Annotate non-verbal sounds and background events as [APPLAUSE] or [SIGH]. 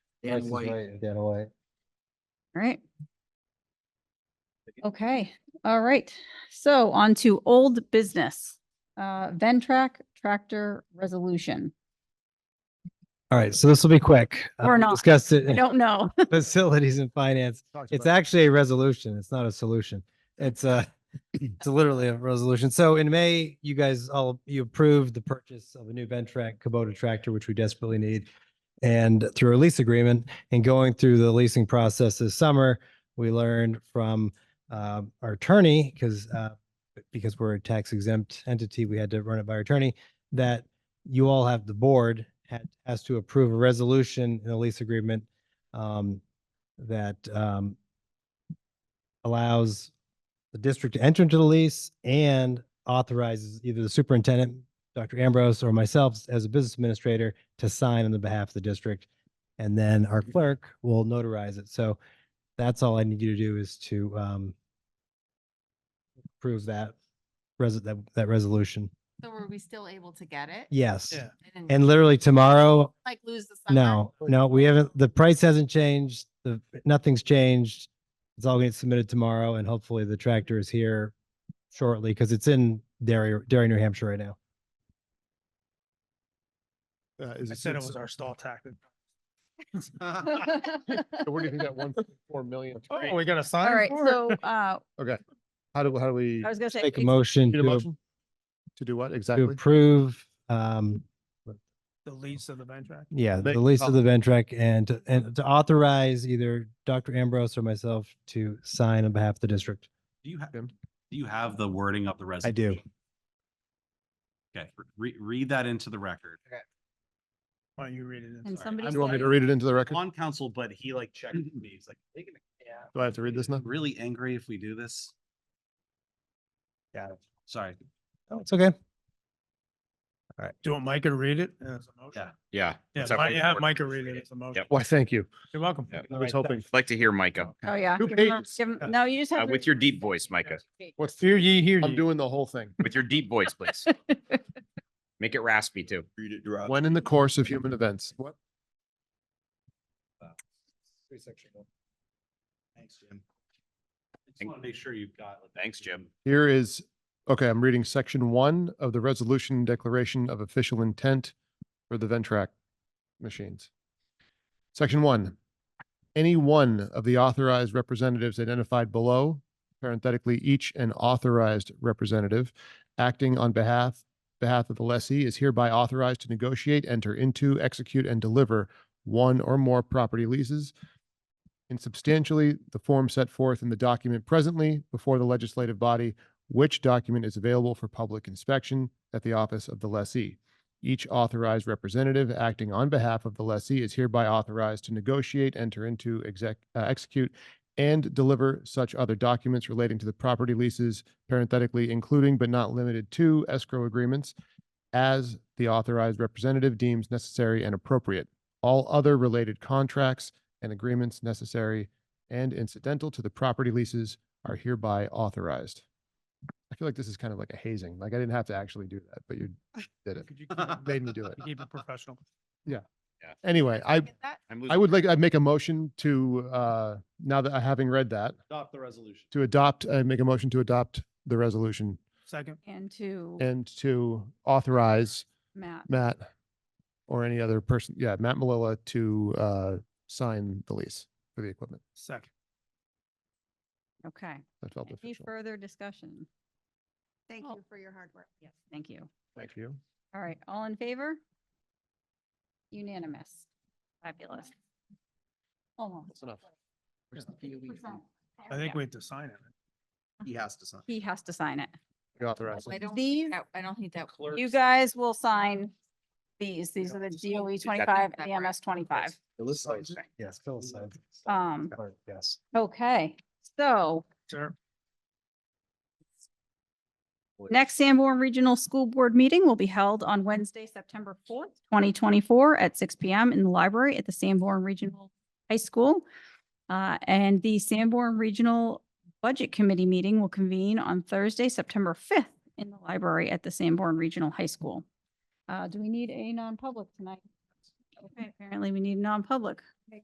Price Dan is White. Right, and Dan White. Right. Okay, all right. So on to old business. Uh, Ventrac tractor resolution. All right, so this will be quick. Uh, Or we not. Discussed it I in don't know. [LAUGHS] [LAUGHS] facilities and finance. It's actually a resolution. It's not a solution. It's a, it's literally a resolution. So in May, you guys all, you approved the purchase of a new Ventrac Kubota tractor, which we desperately need. And through a lease agreement and going through the leasing process this summer, we learned from uh, our attorney, because because we're a tax exempt entity, we had to run it by our attorney, that you all have, the board had, has to approve a resolution in the lease agreement um, that um, allows the district to enter into the lease and authorizes either the superintendent, Dr. Ambrose, or myself as a business administrator to sign on the behalf of the district. And then our clerk will notarize it. So that's all I need you to do is to um, approve that res- that, that resolution. So were we still able to get it? Yes. Yeah. I didn't, And literally tomorrow, Like lose the summer? no, no, we haven't, the price hasn't changed, the, nothing's changed. It's all getting submitted tomorrow and hopefully the tractor is here shortly because it's in Derry, Derry, New Hampshire right now. Uh, is I it said it six- was our stall tactic. so Where do you think that one point four [LAUGHS] million? is Oh, from? we got a sign? All right, for it? so, uh, Okay, how do, how do we I was gonna say. Make a ex- motion need to a motion? To do what to exactly? approve, um, The lease of the Ventrac. yeah, Make- the lease of oh. the Ventrac and, to- and to authorize either Dr. Ambrose or myself to sign on behalf of the district. Do you have, do Jim? you have the wording of the I do. resolution? Okay, re- read that into the record. Why don't you read it? in? And Sorry, somebody. I'm Do you want me said- to read it into the record? On council, but he like checked me. He's like, "Are [CLEARS THROAT] they gonna Do I have to read this be now? really angry if we do this? Yeah. Sorry. Oh, it's okay. Do you want Micah to read it as a motion? Yeah. Yeah. Yeah, that's how Mi- we yeah, have work. Micah read it as a motion. Yep. Why, thank you. You're welcome. Yeah. I was hoping, Like to hear Micah, Oh, yeah. Two Give him- pages. give him- No, you just uh, have. with your deep voice, Micah, what's, Hear ye, hear I'm ye. doing the whole thing. with your deep voice, please. Make it raspy too. Read it, drop. When in the course of human events, what? Uh, Thanks, Jim. I just want to make sure you've got. like, Thanks, Jim. Here is, okay, I'm reading section one of the resolution declaration of official intent for the Ventrac machines. Section one, any one of the authorized representatives identified below, parenthetically, each an authorized representative acting on behalf, behalf of the lessee is hereby authorized to negotiate, enter into, execute, and deliver one or more property leases in substantially the form set forth in the document presently before the legislative body, which document is available for public inspection at the office of the lessee. Each authorized representative acting on behalf of the lessee is hereby authorized to negotiate, enter into, exec, uh, execute, and deliver such other documents relating to the property leases, parenthetically, including but not limited to escrow agreements as the authorized representative deems necessary and appropriate. All other related contracts and agreements necessary and incidental to the property leases are hereby authorized. I feel like this is kind of like a hazing, like I didn't have to actually do that, but you did it. Could you keep- Made me do it. Keep it professional. Anyway, I, Get that? I'm I losing- would like, I'd make a motion to, uh, now that I, having read that, Adopt the resolution. to adopt, I make a motion to adopt the resolution Second, And to and to authorize Matt. Matt or any other person, yeah, Matt Malilla to, uh, sign the lease for the equipment. second. Okay. That felt Any official. further discussion? Thank Oh. you for your hard work. Yes. Thank you. Thank you. All right, all in favor? Unanimous. Fabulous. Almost. That's enough. I think we have to sign it. He has to sign. He has to sign it. You authorize. I don't, These, think that- I don't think that. you guys will sign these. These are the DOE twenty-five and the Separate. MS twenty-five. Yes, Phil said. Um, Yes. okay, so Sure. next Sanborn Regional School Board meeting will be held on Wednesday, September fourth, twenty twenty-four at six P M in the library at the Sanborn Regional High School. Uh, and the Sanborn Regional Budget Committee meeting will convene on Thursday, September fifth in the library at the Sanborn Regional High School. Uh, do we need a non-public tonight? Okay, apparently we need a non-public.